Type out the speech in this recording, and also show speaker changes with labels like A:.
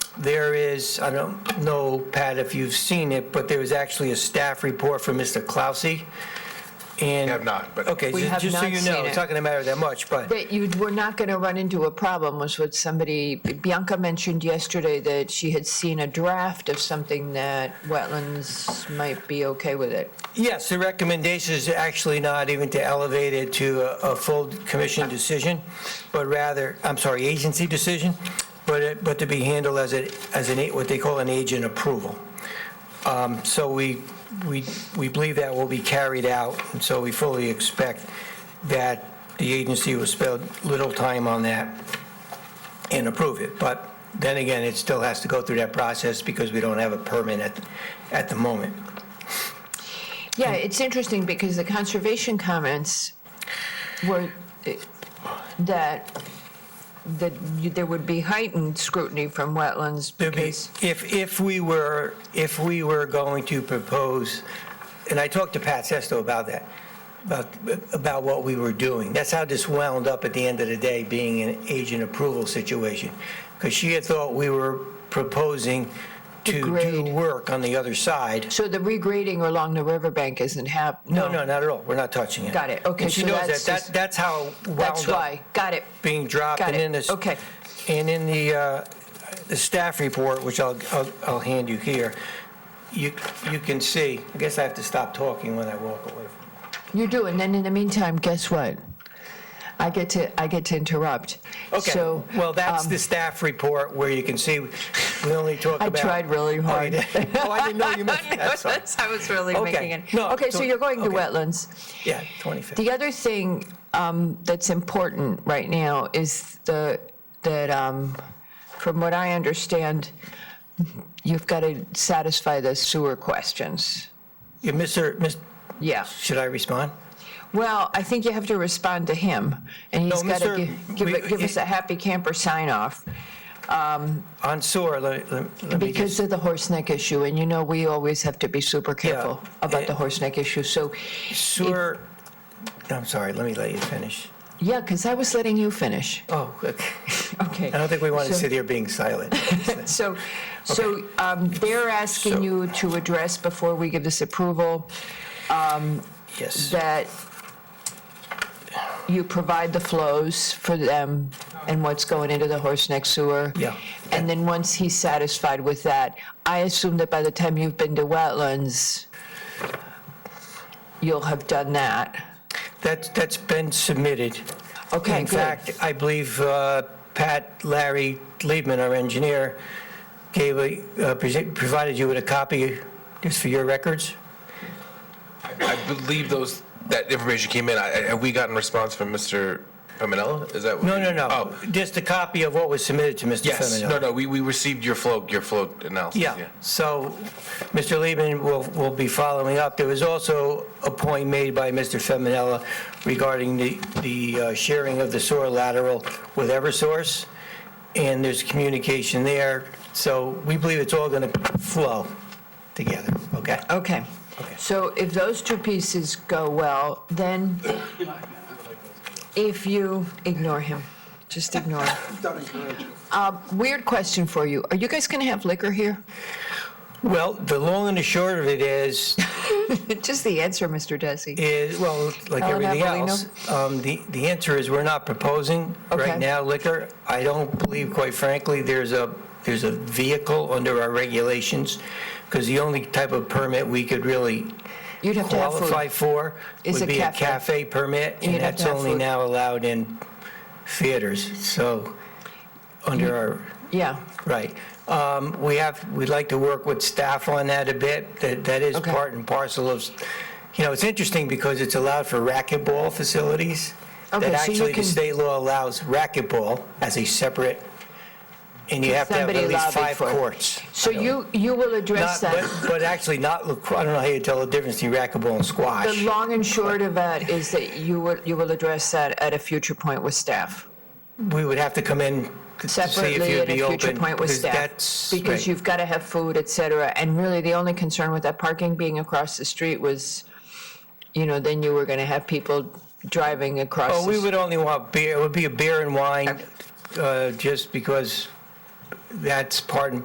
A: there is, I don't know, Pat, if you've seen it, but there was actually a staff report from Mr. Clausy, and...
B: I have not, but-
A: Okay,
C: We
A: ju-
C: have
A: just so
C: not
A: you know,
C: seen
A: it's
C: it.
A: not going to matter that much, but,
C: But you were not going to run into a problem, was what somebody, Bianca mentioned yesterday that she had seen a draft of something that wetlands might be okay with it.
A: yes, the recommendation is actually not even to elevate it to a a full commission decision, but rather, I'm sorry, agency decision, but, it- but to be handled as a, as an, a- what they call an agent approval. Um, So we, we, we believe that will be carried out, and so we fully expect that the agency will spend little time on that and approve it. But then again, it still has to go through that process because we don't have a permit at, at the moment. Hmm.
C: Yeah, it's interesting because the conservation comments were eh, that, that you- there would be heightened scrutiny from wetlands
A: There'd be-
C: because,
A: If, if we were, if we were going to propose, and I talked to Pat Sesto about that, about, about what we were doing. That's how this wound up at the end of the day, being an agent approval situation. Because she had thought we were proposing to do
C: grade.
A: work on the other side.
C: so the regrading along the riverbank isn't happening.
A: No, no, not at all. We're not touching it.
C: Got it. Okay,
A: And she
C: so
A: knows that.
C: that's
A: That,
C: just-
A: that's how it wound up.
C: That's why, got it.
A: being dropped.
C: Got
A: and
C: it.
A: in this-
C: Okay.
A: And in the, uh, the staff report, which I'll, I'll- I'll hand you here, you, you can see, I guess I have to stop talking when I walk away. from-
C: You do, and then in the meantime, guess what? I get to, I get to interrupt. So,
A: Okay, well, that's
C: um,
A: the staff report where you can see, we only talk
C: I
A: about.
C: tried really
A: Oh, you
C: hard.
A: did? Oh, I didn't know you meant, that's all.
C: I was really
A: Okay.
C: making it.
A: No,
C: Okay, so
A: so-
C: you're going to
A: okay.
C: wetlands.
A: Yeah, 25th.
C: The other thing um, that's important right now is the, that, um, from what I understand, you've got to satisfy the sewer questions.
A: Yeah, Mr., Mis-
C: Yeah.
A: should I respond?
C: Well, I think you have to respond to him, and he's
A: No,
C: got
A: Mr.
C: to give,
A: we-
C: it- give us a happy camper sign-off.
A: On sewer, let, let let me
C: Because
A: just,
C: of the horse neck issue, and you know, we always have to be super careful about the
A: eh,
C: horse neck issue, so,
A: sewer, I'm sorry, let me let you finish.
C: yeah, because I was letting you finish.
A: Oh, okay.
C: Okay.
A: I don't think we want to
C: So-
A: sit here being silent.
C: So, so um, they're asking you to address, before we give this approval,
A: Yes.
C: that you provide the flows for them and what's going into the horse neck sewer.
A: Yeah.
C: And then once he's satisfied with that, I assume that by the time you've been to wetlands, you'll have done that.
A: That, that's been submitted.
C: Okay,
A: In
C: good.
A: fact, I believe uh, Pat, Larry Liebman, our engineer, gave a, uh, present- provided you with a copy just for your records?
B: I believe those, that information came in. I- I- Have we gotten response from Mr. Feminella? Is that? what
A: No,
B: you-
A: no, no.
B: Oh,
A: Just a copy of what was submitted to Mr.
B: yes.
A: Feminella.
B: No, no, we, we received your flow, your flow analysis.
A: Yeah, so Mr. Liebman will, will be following up. There was also a point made by Mr. Feminella regarding the, the uh, sharing of the sewer lateral with Eversource, and there's communication there, so we believe it's all going to flow together, okay?
C: Okay. So if those two pieces go well, then if you, ignore him, just ignore him. Uh, Weird question for you. Are you guys going to have liquor here?
A: Well, the long and the short of it is,
C: Just the answer, Mr. Desi.
A: is, well, like
C: Alan
A: everything
C: Avellino?
A: else, um, the, the answer is we're not proposing
C: Okay.
A: right now liquor. I don't believe, quite frankly, there's a, there's a vehicle under our regulations, because the only type of permit we could really
C: You'd have to have food.
A: qualify for
C: Is a
A: would be a
C: cafe.
A: cafe permit,
C: And
A: and
C: you'd have
A: that's
C: to have
A: only
C: food.
A: now allowed in theaters, so, under our
C: Yeah,
A: Right. Um, We have, we'd like to work with staff on that a bit. That That is
C: Okay.
A: part and parcel of, you know, it's interesting because it's allowed for racquetball facilities. That
C: Okay, so you
A: actually, the
C: can-
A: state law allows racquetball as a separate, and you have to have
C: Somebody
A: at least
C: lobbied
A: five
C: for it.
A: courts.
C: so you, you will address
A: Not,
C: that.
A: but, but actually not, lacro- I don't know how you tell the difference between racquetball and
C: The
A: squash.
C: long and short of that is that you will, you will address that at a future point with staff.
A: We would have to come in to see if
C: separately
A: you'd
C: at
A: be
C: a
A: open.
C: future point with
A: because
C: staff.
A: that's-
C: Because
A: right.
C: you've got to have food, et cetera. And really, the only concern with that parking being across the street was, you know, then you were going to have people driving across.
A: Oh,
C: the
A: we
C: s-
A: would only want beer, it would be a beer and wine, uh, just because that's part and